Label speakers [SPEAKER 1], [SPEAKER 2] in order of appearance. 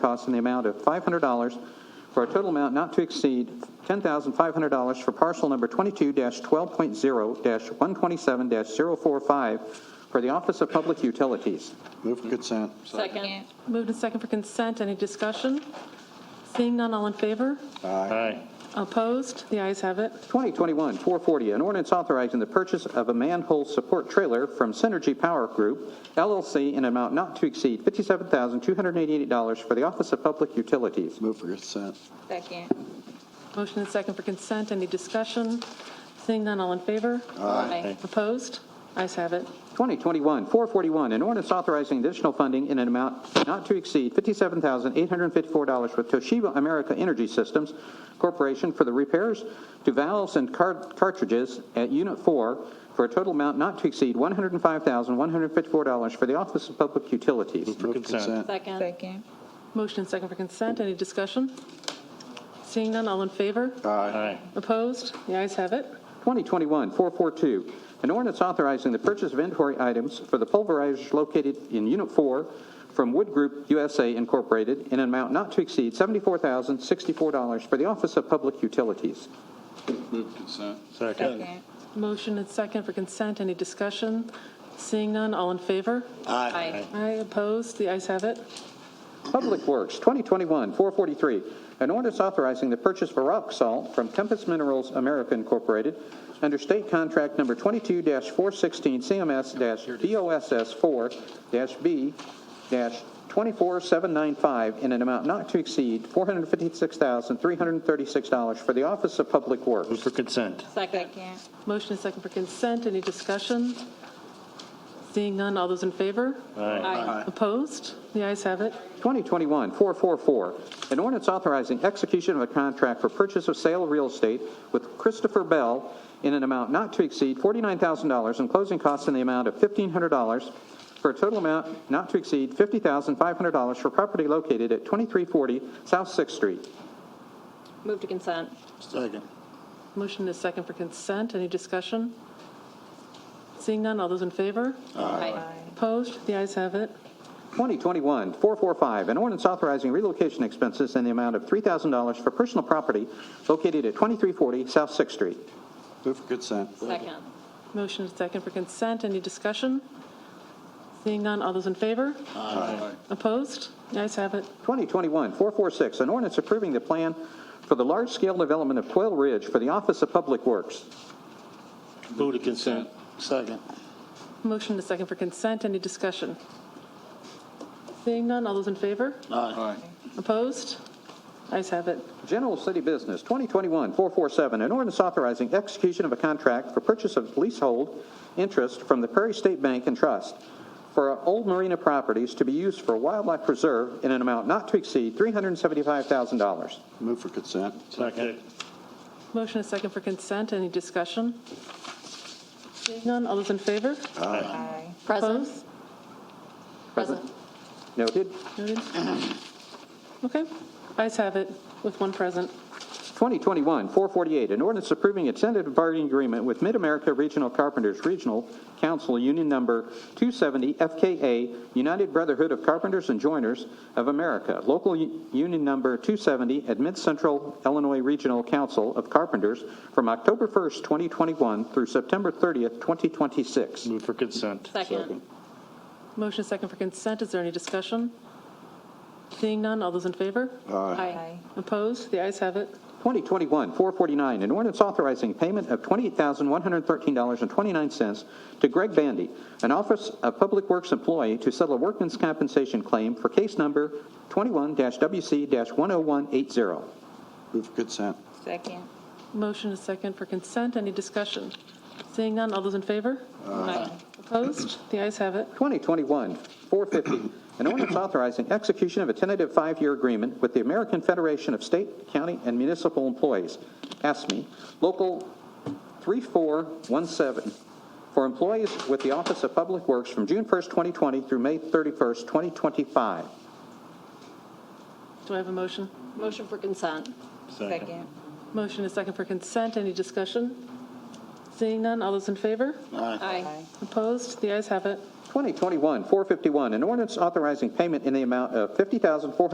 [SPEAKER 1] costs in the amount of $500 for a total amount not to exceed $10,500 for parcel number 22-12.0-127-045 for the Office of Public Utilities.
[SPEAKER 2] Move for consent.
[SPEAKER 3] Second.
[SPEAKER 4] Moved and second for consent. Any discussion? Seeing none, all in favor?
[SPEAKER 2] Aye.
[SPEAKER 4] Opposed? The ayes have it.
[SPEAKER 1] 2021-440, an ordinance authorizing the purchase of a manhole support trailer from Synergy Power Group LLC in an amount not to exceed $57,288 for the Office of Public Utilities.
[SPEAKER 2] Move for consent.
[SPEAKER 3] Second.
[SPEAKER 4] Motion and second for consent. Any discussion? Seeing none, all in favor?
[SPEAKER 3] Aye.
[SPEAKER 4] Opposed? Ayes have it.
[SPEAKER 1] 2021-441, an ordinance authorizing additional funding in an amount not to exceed $57,854 with Toshiba America Energy Systems Corporation for the repairs to valves and cart- cartridges at Unit 4 for a total amount not to exceed $105,154 for the Office of Public Utilities.
[SPEAKER 2] Move for consent.
[SPEAKER 4] Second.
[SPEAKER 3] Second.
[SPEAKER 4] Motion and second for consent. Any discussion? Seeing none, all in favor?
[SPEAKER 2] Aye.
[SPEAKER 4] Opposed? The ayes have it.
[SPEAKER 1] 2021-442, an ordinance authorizing the purchase of inventory items for the pulverizers located in Unit 4 from Wood Group USA Incorporated in an amount not to exceed $74,064 for the Office of Public Utilities.
[SPEAKER 2] Second.
[SPEAKER 3] Second.
[SPEAKER 4] Motion and second for consent. Any discussion? Seeing none, all in favor?
[SPEAKER 3] Aye.
[SPEAKER 4] Aye. Opposed? The ayes have it.
[SPEAKER 1] Public Works, 2021-443, an ordinance authorizing the purchase of rock salt from Compass Minerals America Incorporated under State Contract Number 22-416 CMS-DOSS-4-B-24795 in an amount not to exceed $456,336 for the Office of Public Works.
[SPEAKER 5] Move for consent.
[SPEAKER 3] Second.
[SPEAKER 4] Motion and second for consent. Any discussion? Seeing none, all those in favor?
[SPEAKER 3] Aye.
[SPEAKER 4] Opposed? The ayes have it.
[SPEAKER 1] 2021-444, an ordinance authorizing execution of a contract for purchase of sale of real estate with Christopher Bell in an amount not to exceed $49,000 and closing costs in the amount of $1,500 for a total amount not to exceed $50,500 for property located at 2340 South Sixth Street.
[SPEAKER 3] Move to consent.
[SPEAKER 2] Second.
[SPEAKER 4] Motion is second for consent. Any discussion? Seeing none, all those in favor?
[SPEAKER 3] Aye.
[SPEAKER 4] Opposed? The ayes have it.
[SPEAKER 1] 2021-445, an ordinance authorizing relocation expenses in the amount of $3,000 for personal property located at 2340 South Sixth Street.
[SPEAKER 2] Move for consent.
[SPEAKER 3] Second.
[SPEAKER 4] Motion is second for consent. Any discussion? Seeing none, all those in favor?
[SPEAKER 2] Aye.
[SPEAKER 4] Opposed? The ayes have it.
[SPEAKER 1] 2021-446, an ordinance approving the plan for the large-scale development of Quail Ridge for the Office of Public Works.
[SPEAKER 5] Move to consent.
[SPEAKER 2] Second.
[SPEAKER 4] Motion is second for consent. Any discussion? Seeing none, all those in favor?
[SPEAKER 2] Aye.
[SPEAKER 4] Opposed? Ayes have it.
[SPEAKER 1] General City Business, 2021-447, an ordinance authorizing execution of a contract for purchase of leasehold interest from the Prairie State Bank and Trust for old marina properties to be used for wildlife preserve in an amount not to exceed $375,000.
[SPEAKER 2] Move for consent.
[SPEAKER 5] Second.
[SPEAKER 4] Motion is second for consent. Any discussion? Seeing none, all those in favor?
[SPEAKER 3] Aye.
[SPEAKER 4] Present.
[SPEAKER 3] Present.
[SPEAKER 1] Noted.
[SPEAKER 4] Noted. Okay, ayes have it with one present.
[SPEAKER 1] 2021-448, an ordinance approving a tentative bargaining agreement with Mid-America Regional Carpenters Regional Council Union Number 270 FKA United Brotherhood of Carpenters and Joiners of America, Local U- Union Number 270 at Mid-Central Illinois Regional Council of Carpenters from October 1st, 2021 through September 30th, 2026.
[SPEAKER 5] Move for consent.
[SPEAKER 3] Second.
[SPEAKER 4] Motion second for consent, is there any discussion? Seeing none, all those in favor?
[SPEAKER 3] Aye.
[SPEAKER 4] Opposed? The ayes have it.
[SPEAKER 1] 2021-449, an ordinance authorizing payment of $28,113.29 to Greg Bandy, an Office of Public Works employee, to settle a workman's compensation claim for case number 21-WC-10180.
[SPEAKER 2] Move for consent.
[SPEAKER 3] Second.
[SPEAKER 4] Motion is second for consent, any discussion? Seeing none, all those in favor?
[SPEAKER 3] Aye.
[SPEAKER 4] Opposed? The ayes have it.
[SPEAKER 1] 2021-450, an ordinance authorizing execution of a tentative five-year agreement with the American Federation of State, County, and Municipal Employees, ASME, E, Local 3417, for employees with the Office of Public Works from June 1st, 2020 through May 31st, 2025.
[SPEAKER 4] Do I have a motion?
[SPEAKER 3] Motion for consent.
[SPEAKER 5] Second.
[SPEAKER 4] Motion is second for consent, any discussion? Seeing none, all those in favor?
[SPEAKER 3] Aye.
[SPEAKER 4] Opposed? The ayes have it.
[SPEAKER 1] 2021-451, an ordinance authorizing payment in the amount of $50,400